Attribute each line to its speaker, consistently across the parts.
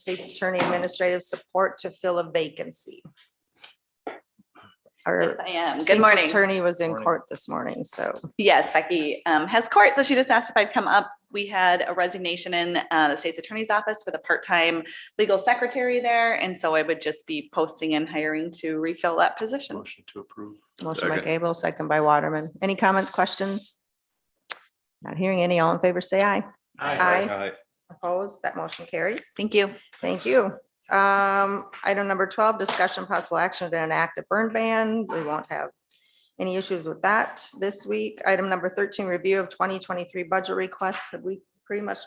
Speaker 1: state's attorney administrative support to fill a vacancy.
Speaker 2: Yes,
Speaker 1: Our
Speaker 2: I am. Good
Speaker 1: state's
Speaker 2: morning.
Speaker 1: attorney was in
Speaker 3: Morning.
Speaker 1: court this morning, so
Speaker 2: Yes, Becky um, has court, so she just asked if I'd come up. We had a resignation in uh, the state's attorney's office with a part-time legal secretary there, and so I would just be posting and hiring to refill that position.
Speaker 3: Motion to approve.
Speaker 1: motion by
Speaker 4: Second.
Speaker 1: Gable, second by Waterman. Any comments, questions? Not hearing any. All in favor, say aye. Aye. Opposed, that motion carries.
Speaker 2: Thank you.
Speaker 1: Thank you. Um, item number twelve, discussion possible action to enact a burn ban. We won't have any issues with that this week. Item number thirteen, review of twenty twenty-three budget requests. Have we pretty much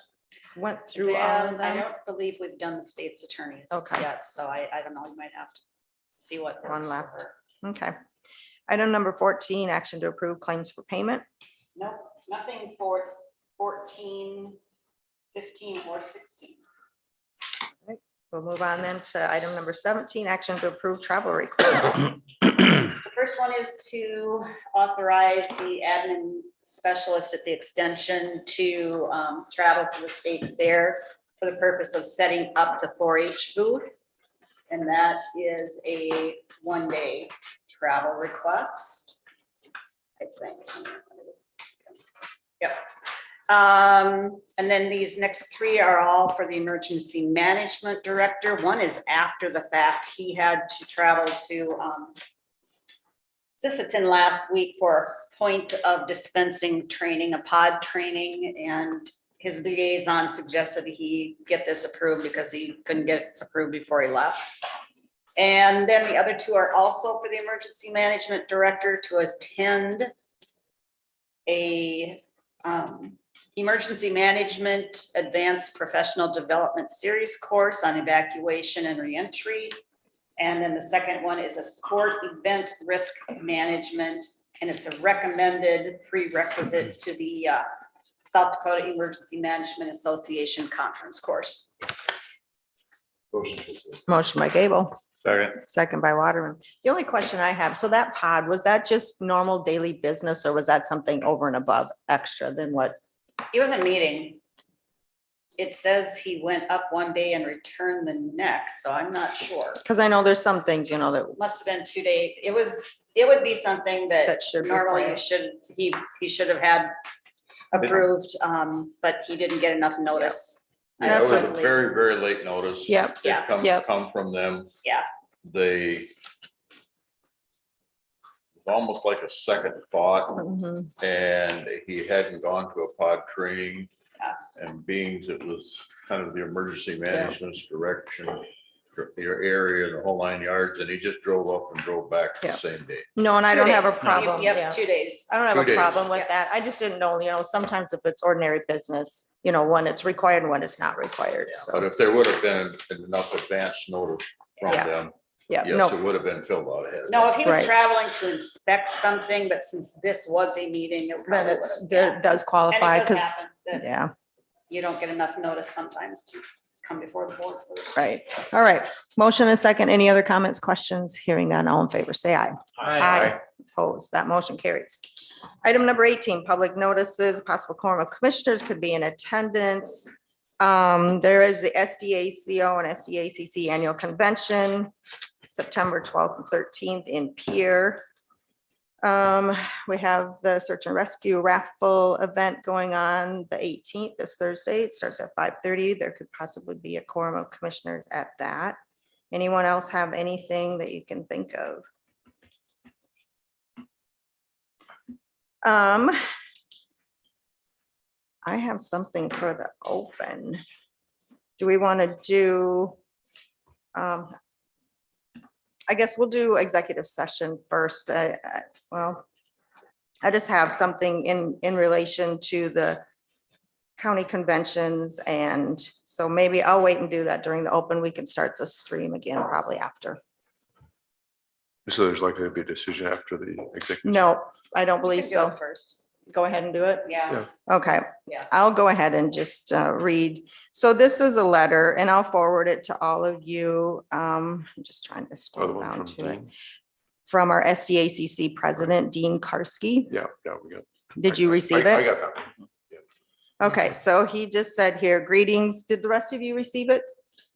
Speaker 1: went through all
Speaker 5: Yeah,
Speaker 1: of
Speaker 5: I
Speaker 1: them?
Speaker 5: don't believe we've done the state's attorneys
Speaker 1: Okay.
Speaker 5: yet, so I, I don't know, you might have to see what.
Speaker 1: One
Speaker 5: works for
Speaker 1: left.
Speaker 5: her.
Speaker 1: Okay. Item number fourteen, action to approve claims for payment.
Speaker 5: Nope, nothing for 14, 15, or sixteen.
Speaker 1: We'll move on then to item number seventeen, action to approve travel requests.
Speaker 5: The first one is to authorize the admin specialist at the extension to um, travel to the state fair for the purpose of setting up the four H booth. And that is a one-day travel request. I think. Yep. Um, and then these next three are all for the emergency management director. One is after the fact. He had to travel to um, Sisseton last week for point of dispensing training, a pod training, and his liaison suggested he get this approved because he couldn't get it approved before he left. And then the other two are also for the emergency management director to attend a um, emergency management advanced professional development series course on evacuation and reentry. And then the second one is a sport event risk management, and it's a recommended prerequisite to the uh, South Dakota Emergency Management Association Conference Course.
Speaker 3: Motion to approve.
Speaker 1: Motion by Gable,
Speaker 4: Second.
Speaker 1: second by Waterman. The only question I have, so that pod, was that just normal daily business or was that something over and above extra than what?
Speaker 5: It was a meeting. It says he went up one day and returned the next, so I'm not sure.
Speaker 1: Because I know there's some things, you know, that,
Speaker 5: Must have been two day, it was, it would be something that
Speaker 1: that should. be
Speaker 5: normally you
Speaker 1: planned.
Speaker 5: should, he, he should have had approved, um, but he didn't get enough notice.
Speaker 4: Yeah, it was
Speaker 1: That's
Speaker 4: a
Speaker 1: what-
Speaker 4: very, very late notice.
Speaker 1: Yep,
Speaker 4: It
Speaker 5: Yeah.
Speaker 4: Come,
Speaker 1: Yep.
Speaker 4: come from them.
Speaker 5: Yeah.
Speaker 4: They almost like a second thought
Speaker 1: mhm,
Speaker 4: and he hadn't gone to a pod training.
Speaker 5: Yeah.
Speaker 4: And beings, it was kind of the emergency management's direction, your area, the whole nine yards, and he just drove up and drove back
Speaker 1: Yeah.
Speaker 4: the same day.
Speaker 1: No, and I
Speaker 5: Two
Speaker 1: don't have a
Speaker 5: days.
Speaker 1: problem. yeah.
Speaker 5: Yep, two days.
Speaker 1: I don't have
Speaker 4: Two
Speaker 1: a
Speaker 4: days.
Speaker 1: problem with
Speaker 5: Yeah.
Speaker 1: that. I just didn't know, you know, sometimes if it's ordinary business, you know, when it's required and when it's not required,
Speaker 4: But
Speaker 1: so.
Speaker 4: if there would have been enough advance notice from
Speaker 1: Yeah.
Speaker 4: them,
Speaker 1: Yeah,
Speaker 4: yes,
Speaker 1: no,
Speaker 4: it would have been filled out ahead. of
Speaker 5: No, if
Speaker 4: time.
Speaker 5: he was
Speaker 1: Right.
Speaker 5: traveling to inspect something, but since this was a meeting, it
Speaker 1: then
Speaker 5: probably
Speaker 1: it's,
Speaker 5: would
Speaker 1: there
Speaker 5: have.
Speaker 1: does qualify,
Speaker 5: And it does
Speaker 1: because,
Speaker 5: happen that
Speaker 1: yeah,
Speaker 5: you don't get enough notice sometimes to come before the board. for it.
Speaker 1: right. All right. Motion and second. Any other comments, questions? Hearing none, all in favor, say aye. Aye. Opposed, that motion carries. Item number eighteen, public notices, possible quorum of commissioners could be in attendance. Um, there is the SDACO and SDACC Annual Convention, September twelfth and thirteenth in Pier. Um, we have the search and rescue raffle event going on the eighteenth, this Thursday. It starts at five thirty. There could possibly be a quorum of commissioners at that. Anyone else have anything that you can think of? Um. I have something for the open. Do we want to do? um I guess we'll do executive session first. I, I- well. I just have something in, in relation to the county conventions and so maybe I'll wait and do that during the open. We can start the stream again probably after.
Speaker 6: So there's likely to be a decision after the executive.
Speaker 1: No, I don't
Speaker 5: You
Speaker 1: believe
Speaker 5: can do
Speaker 1: so.
Speaker 5: it First,
Speaker 1: Go ahead and do it.
Speaker 5: yeah.
Speaker 6: Yeah.
Speaker 1: Okay.
Speaker 5: Yeah.
Speaker 1: I'll go ahead and just uh, read. So this is a letter and I'll forward it to all of you. Um, I'm just trying to
Speaker 6: or the
Speaker 1: scroll
Speaker 6: one
Speaker 1: down
Speaker 6: from
Speaker 1: to it.
Speaker 6: Dean.
Speaker 1: From our SDACC President Dean Karski.
Speaker 6: Yeah, yeah, we got.
Speaker 1: Did
Speaker 6: I-
Speaker 1: you
Speaker 6: I-
Speaker 1: receive
Speaker 6: I
Speaker 1: it?
Speaker 6: got that.
Speaker 1: Okay, so he just said here, greetings. Did the rest of you receive it?